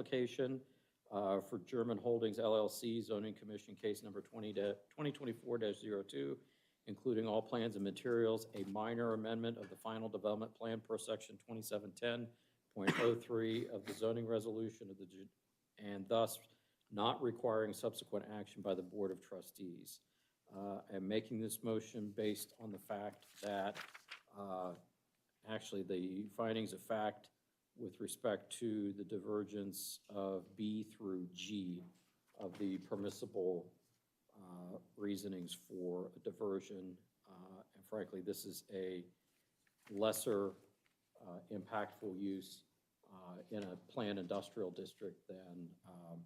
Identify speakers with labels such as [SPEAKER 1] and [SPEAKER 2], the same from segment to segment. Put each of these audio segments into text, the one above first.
[SPEAKER 1] application uh, for German Holdings LLC zoning commission case number 20 da- 2024-02, including all plans and materials, a minor amendment of the final development plan per section 2710.03 of the zoning resolution of the, ju- and thus not requiring subsequent action by the Board of Trustees. Uh, I'm making this motion based on the fact that, uh, actually, the findings of fact with respect to the divergence of B through G of the permissible uh, reasonings for a diversion. Uh, And frankly, this is a lesser uh, impactful use uh, in a planned industrial district than um,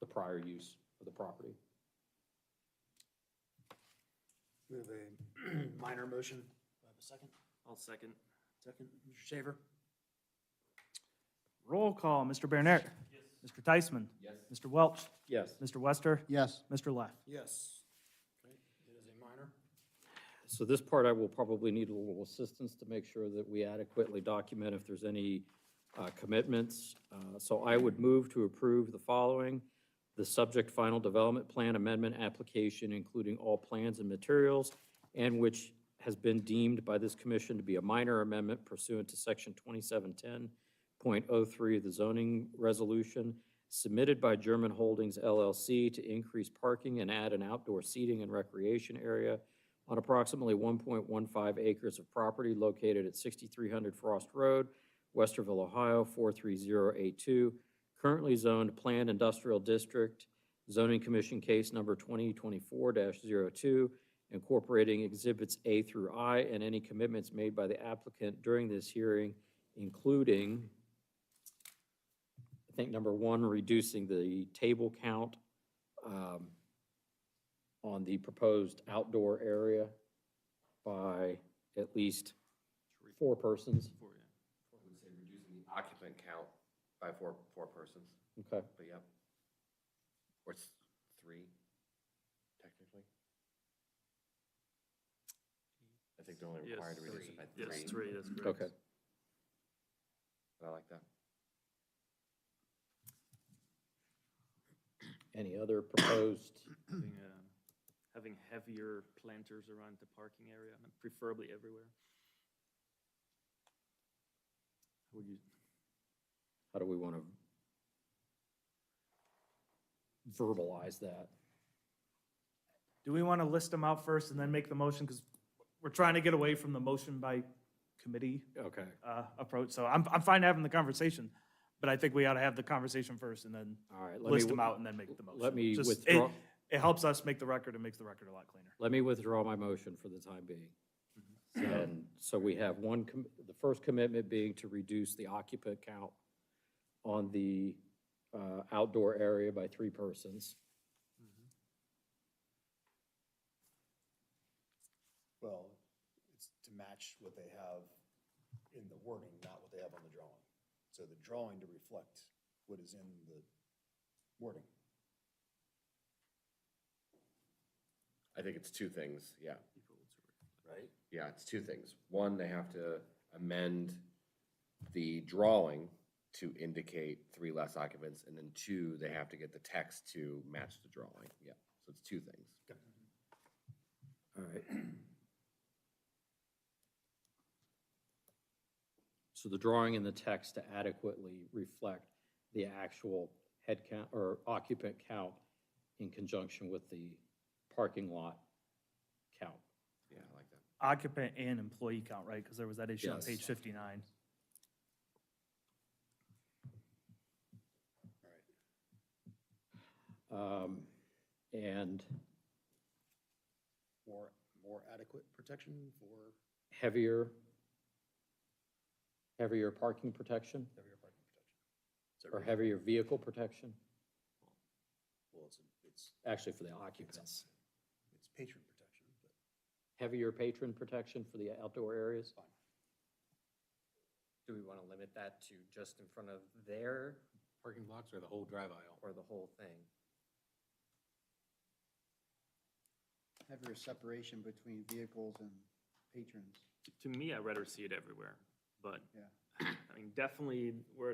[SPEAKER 1] the prior use of the property.
[SPEAKER 2] We have a minor motion. Do I have a second?
[SPEAKER 3] I'll second.
[SPEAKER 2] Second, Mr. Shaver?
[SPEAKER 4] Roll call, Mr. Bernert. Yes. Mr. Tysman. Yes. Mr. Welch.
[SPEAKER 1] Yes.
[SPEAKER 4] Mr. Wester.
[SPEAKER 5] yes,
[SPEAKER 4] Mr. Leff.
[SPEAKER 2] Yes. Okay, it is a minor.
[SPEAKER 1] So this part, I will probably need a little assistance to make sure that we adequately document if there's any uh, commitments. Uh, So I would move to approve the following. The subject final development plan amendment application, including all plans and materials, and which has been deemed by this commission to be a minor amendment pursuant to section 2710.03 of the zoning resolution, submitted by German Holdings LLC to increase parking and add an outdoor seating and recreation area on approximately 1.15 acres of property located at 6300 Frost Road, Westerville, Ohio, 43082, currently zoned Planned Industrial District, Zoning Commission Case Number 2024-02, incorporating Exhibits A through I and any commitments made by the applicant during this hearing, including, I think, number one, reducing the table count um, on the proposed outdoor area by at least four persons.
[SPEAKER 6] I would say reducing the occupant count by four, four persons,
[SPEAKER 1] Okay,
[SPEAKER 6] but yep. Or it's three, technically. I think they're only
[SPEAKER 3] Yes,
[SPEAKER 6] required to reduce it by three.
[SPEAKER 3] Yes, three, that's correct.
[SPEAKER 1] okay.
[SPEAKER 6] But I like that.
[SPEAKER 1] Any other proposed,
[SPEAKER 3] Having, uh, Having heavier planters around the parking area, and preferably everywhere. How would you,
[SPEAKER 1] how do we want to verbalize that?
[SPEAKER 4] Do we want to list them out first and then make the motion? Because we're trying to get away from the motion by committee
[SPEAKER 1] Okay,
[SPEAKER 4] uh, approach. So I'm, I'm fine having the conversation, but I think we ought to have the conversation first and then
[SPEAKER 1] all right. let me
[SPEAKER 4] list them
[SPEAKER 1] w-
[SPEAKER 4] out and then make the motion.
[SPEAKER 1] Let me
[SPEAKER 4] Just- it-
[SPEAKER 1] withdraw,
[SPEAKER 4] It helps us make the record and makes the record a lot cleaner.
[SPEAKER 1] let me withdraw my motion for the time being.
[SPEAKER 4] Mm-hmm.
[SPEAKER 1] And so we have one, com- the first commitment being to reduce the occupant count on the uh, outdoor area by three persons.
[SPEAKER 2] Well, it's to match what they have in the wording, not what they have on the drawing. So the drawing to reflect what is in the wording.
[SPEAKER 6] I think it's two things, yeah. Right? Yeah, it's two things. One, they have to amend the drawing to indicate three less occupants, and then two, they have to get the text to match the drawing, yeah. So it's two things.
[SPEAKER 1] All right. So the drawing and the text to adequately reflect the actual head count or occupant count in conjunction with the parking lot count.
[SPEAKER 6] Yeah, I like that.
[SPEAKER 4] Occupant and employee count, right? Because there was that issue on
[SPEAKER 1] Yes.
[SPEAKER 4] page 59.
[SPEAKER 1] Um, And
[SPEAKER 2] More, more adequate protection for
[SPEAKER 1] heavier, heavier parking protection
[SPEAKER 2] heavier parking protection. Is that
[SPEAKER 1] or
[SPEAKER 2] right?
[SPEAKER 1] heavier vehicle protection,
[SPEAKER 2] Well, it's, it's,
[SPEAKER 1] actually for the occupants.
[SPEAKER 2] it's patron protection, but.
[SPEAKER 1] Heavier patron protection for the outdoor areas?
[SPEAKER 7] Do we want to limit that to just in front of their? Parking blocks or the whole drive aisle? Or the whole thing?
[SPEAKER 5] heavier separation between vehicles and patrons.
[SPEAKER 3] to me, I'd rather see it everywhere, but,
[SPEAKER 5] Yeah.
[SPEAKER 3] I mean, definitely where